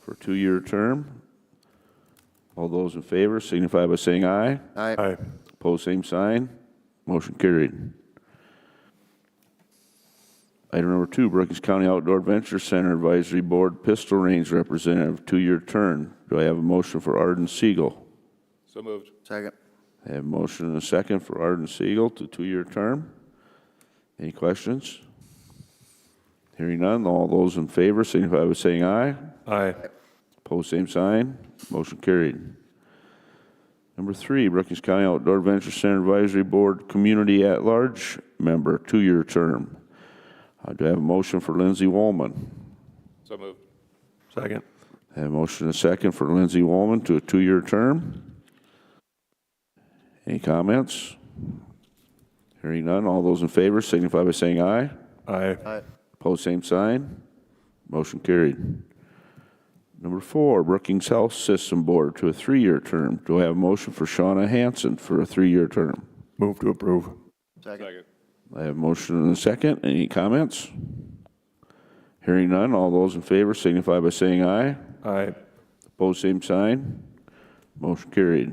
for a two-year term. All those in favor signify by saying aye. Aye. Aye. Pose same sign. Motion carried. Item number two, Brookings County Outdoor Adventure Center Advisory Board Pistol Range Representative, two-year term. Do I have a motion for Arden Siegel? So moved. Second. I have a motion and a second for Arden Siegel to two-year term. Any questions? Hearing none, all those in favor signify by saying aye. Aye. Pose same sign. Motion carried. Number three, Brookings County Outdoor Adventure Center Advisory Board Community At-Large Member, two-year term. Uh, Do I have a motion for Lindsay Woolman? So moved. Second. I have a motion and a second for Lindsay Woolman to a two-year term. Any comments? Hearing none, all those in favor signify by saying aye. Aye. Aye. Pose same sign. Motion carried. Number four, Brookings Health System Board to a three-year term. Do I have a motion for Shawna Hanson for a three-year term? Move to approve. Second. I have a motion and a second. Any comments? Hearing none, all those in favor signify by saying aye. Aye. Opposed, same sign. Motion carried.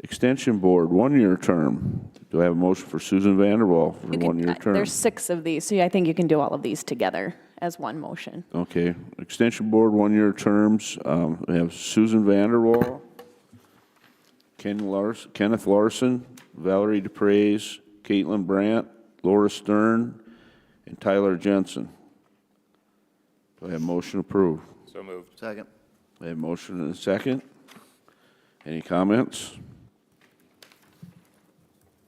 Extension Board, one-year term. Do I have a motion for Susan Vanderwall for You a can- one-year uh, term? There's six of these, so I think you can do all of these together as one motion. Okay, Extension Board, one-year terms, um, we have Susan Vanderwall, Ken Lars, Kenneth Larson, Valerie DePreez, Caitlin Brandt, Laura Stern, and Tyler Jensen. Do I have motion approved? So moved. Second. I have motion and a second. Any comments?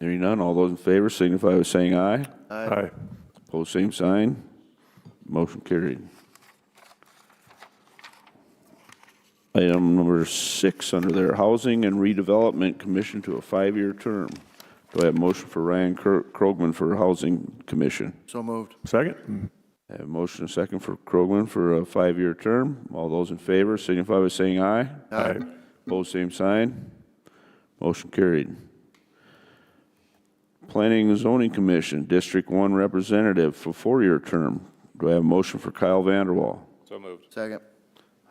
Hearing none, all those in favor signify by saying aye. Aye. Pose same sign. Motion carried. Item number six under their Housing and Redevelopment Commission to a five-year term. Do I have a motion for Ryan Kro- Krogman for Housing Commission? So moved. Second. I have a motion and a second for Krogman for a five-year term. All those in favor signify by saying aye. Aye. Pose same sign. Motion carried. Planning and Zoning Commission, District One Representative for four-year term. Do I have a motion for Kyle Vanderwall? So moved. Second.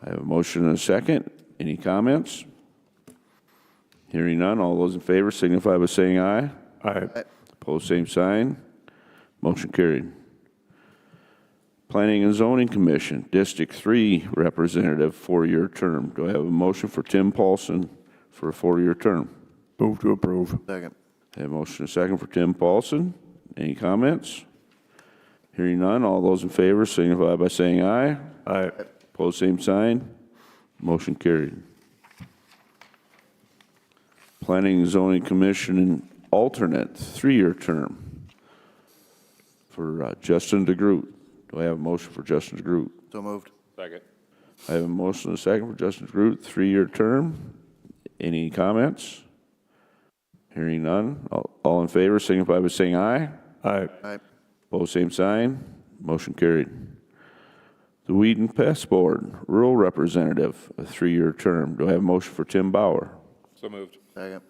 I have a motion and a second. Any comments? Hearing none, all those in favor signify by saying aye. Aye. Pose same sign. Motion carried. Planning and Zoning Commission, District Three Representative, four-year term. Do I have a motion for Tim Paulson for a four-year term? Move to approve. Second. I Have a motion and a second for Tim Paulson. Any comments? Hearing none, all those in favor signify by saying aye. Aye. Pose same sign. Motion carried. Planning and Zoning Commission alternate, three-year term for uh, Justin DeGroot. Do I have a motion for Justin DeGroot? So moved. Second. I have a motion and a second for Justin DeGroot, three-year term. Any comments? Hearing none. All- All in favor signify by saying aye. Aye. Aye. Pose same sign. Motion carried. The Weed and Pest Board, Rural Representative, a three-year term. Do I have a motion for Tim Bauer? So moved. Second.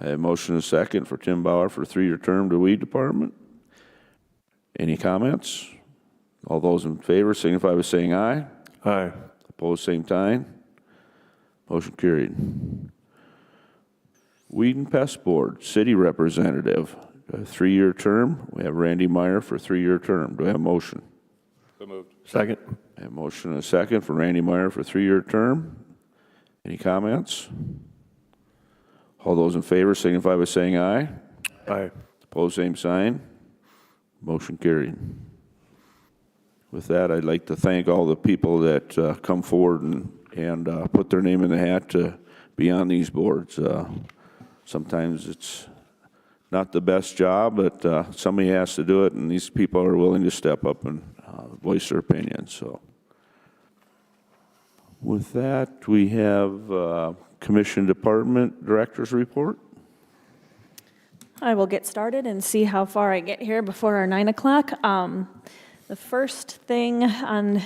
I have a motion and a second for Tim Bauer for a three-year term to Weed Department. Any comments? All those in favor signify by saying aye. Aye. Opposed, same time. Motion carried. Weed and Pest Board, City Representative, a three-year term. We have Randy Meyer for a three-year term. Do I have a motion? So moved. Second. I have a motion and a second for Randy Meyer for a three-year term. Any comments? All those in favor signify by saying aye. Aye. Opposed, same sign. Motion carried. With that, I'd like to thank all the people that uh, come forward and, and uh, put their name in the hat to be on these boards. Uh, Sometimes it's not the best job, but uh, somebody has to do it, and these people are willing to step up and uh, voice their opinion, so. With that, we have uh, Commission Department Director's Report. I will get started and see how far I get here before our nine o'clock. Um, The first thing on,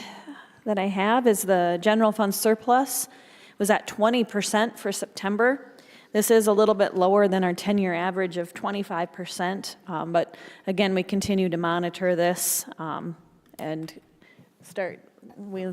that I have is the general fund surplus was at twenty percent for September. This is a little bit lower than our ten-year average of twenty-five percent, but again, we continue to monitor this um, and um, start, we